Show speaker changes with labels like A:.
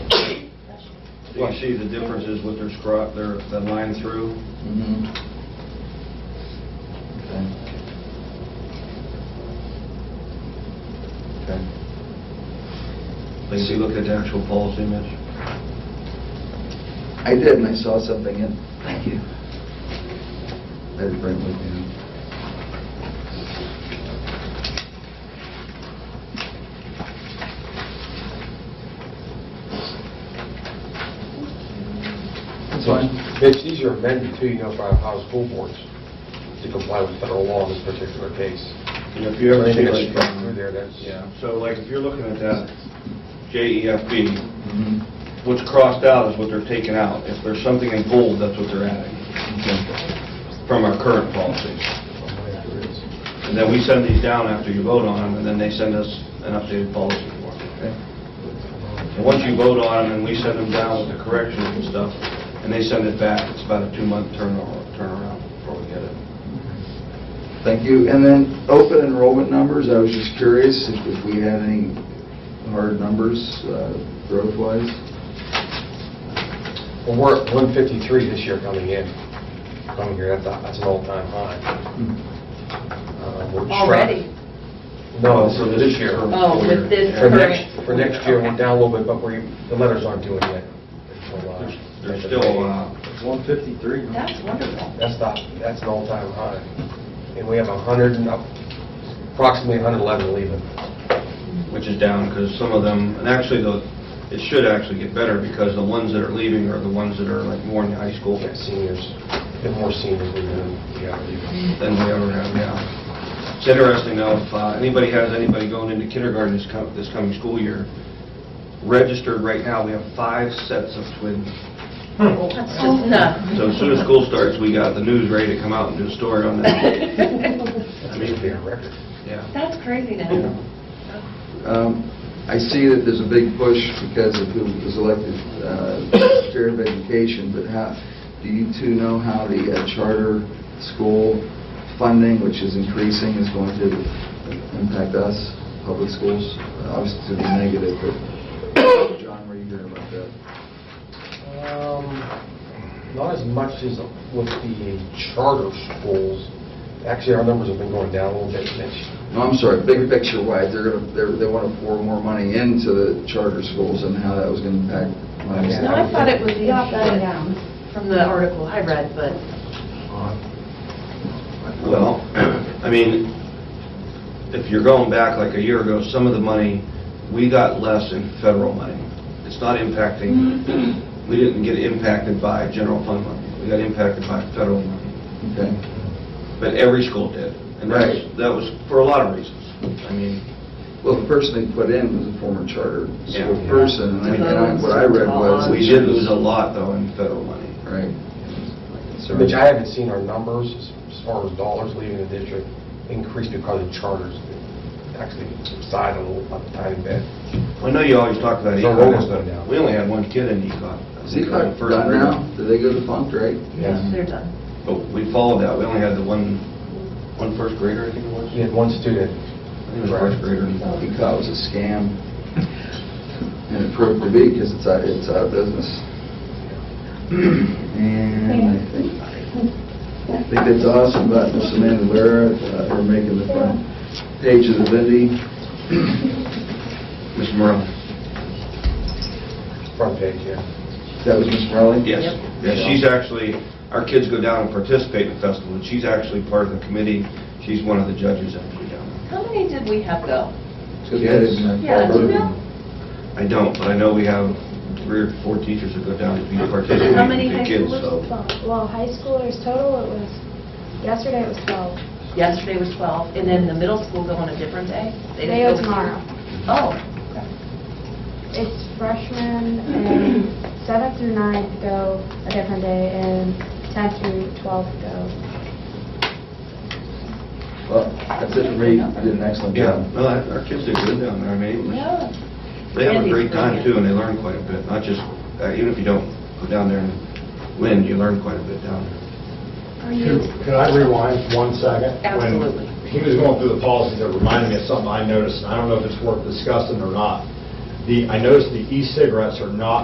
A: You can see the differences with their scrot, their, the line through.
B: Mhm. Okay. Okay.
A: Like, if you look at the actual Paul's image,
B: I did, and I saw something, and thank you. I didn't bring it with me. That's fine.
C: Mitch, these are amended too, you know, by Ohio school boards to comply with federal law in this particular case.
A: you know, if you ever see
C: Anything that's
A: like,
C: struck through there, that's,
B: Yeah.
A: so like, if you're looking at that JEFB,
B: Mhm.
A: what's crossed out is what they're taking out. If there's something in bold, that's what they're adding
B: Okay.
A: from our current policy. And then we send these down after you vote on them, and then they send us an updated policy form.
B: Okay.
A: And once you vote on them, and we send them down with the corrections and stuff, and they send it back, it's about a two-month turnaround, turnaround before we get it.
B: Thank you. And then open enrollment numbers, I was just curious if if we had any hard numbers uh, growth-wise?
C: Well, we're at 153 this year coming in, coming here, that's, a- that's an all-time high. Uh, we're just-
D: Already?
C: No, for this year.
D: Oh, with this
C: For
A: Yeah.
C: next,
D: current-
C: for next year, we're down a little bit, but we, the letters aren't due it yet. until, uh,
A: There's there's still, uh,
B: It's 153.
D: That's wonderful.
C: That's not, that's an all-time high. And we have 100, and up- approximately 111 leaving.
A: which is down, because some of them, and actually, the it should actually get better, because the ones that are leaving are the ones that are like more in the high school
C: We've got seniors, and more seniors leaving than we have leaving.
A: than we ever have now. It's interesting though, if uh, anybody has anybody going into kindergarten this com- this coming school year, registered right now, we have five sets of twins.
D: Oh, That's just nuts.
A: So as soon as school starts, we got the news ready to come out and do a story on that.
C: That may be a record.
A: Yeah.
D: That's crazy
A: Yeah.
D: now.
B: Um, I see that there's a big push because of who was elected uh, Secretary of Education, but how, do you two know how the uh, charter school funding, which is increasing, is going to impact us, public schools? Obviously, to the negative, but John, what are you hearing about that?
C: Um, Not as much as with the charter schools. Actually, our numbers have been going down a little bit, Mitch.
B: No, I'm sorry, big picture wise, they're going to, they want to pour more money into the charter schools and how that was going to impact. my
C: Yeah.
B: understanding.
D: No, I thought it was the opposite
E: Upside down.
D: from the article I read, but
C: Uh-huh.
A: Well, I mean, if you're going back like a year ago, some of the money, we got less in federal money. It's not impacting, we didn't get impacted by general fund money. We got impacted by federal money,
B: Okay.
A: but every school did. And that's, that was for a lot of reasons. I mean,
B: Well, the person they put in was a former charter school
A: Yeah.
B: person, and I- and I- what I read was...
A: we did lose a lot though in federal money.
B: Right. So-
C: Mitch, I haven't seen our numbers as- as far as dollars leaving the district increase because of charters. Actually subside a little, a tiny bit.
A: I know you always talk about
C: So
A: ECON.
C: what was that now?
A: We only had one kid in ECON.
B: Is he cut done now? Did they go to funk, right?
D: yes, they're done.
A: But we followed that. We only had the one, one first grader, I think it was.
C: We had one student.
A: I think it was first grader.
B: He thought it was a scam, and it proved to be, because it's out, it's out of business. And I think, I think that's awesome about Miss Amanda Lara, uh, her making the front page of the Vindy.
A: Ms. Morales?
C: Front page, yeah.
B: That was Miss Rowley?
A: Yes. Yeah, she's actually, our kids go down and participate in the festival, and she's actually part of the committee. She's one of the judges that go down.
D: How many did we have go?
B: So we had it in our-
D: Yeah, do you know?
A: I don't, but I know we have three or four teachers that go down to be participating
D: How many
A: with the
D: high
A: kids,
D: schoolers?
A: so.
E: Well, high schoolers total, it was, yesterday it was 12.
D: Yesterday was 12, and then the middle school go on a different day? didn't
E: They go
D: go-
E: tomorrow.
D: Oh,
E: It's freshmen and seventh through ninth go a different day and 10th through 12th go.
B: Well, that's it for me. You did an excellent
A: Yeah,
B: job.
A: no, our our kids do good down there. I mean, it was-
D: yeah.
A: They have a
D: Andy's
A: great time
D: brilliant.
A: too, and they learn quite a bit, not just, uh, even if you don't go down there and win, you learn quite a bit down there.
D: Are
F: Could
D: you?
F: could I rewind one second?
D: Absolutely.
F: When he was going through the policies, it reminded me of something I noticed, and I don't know if it's worth discussing or not. The, I noticed the e-cigarettes are not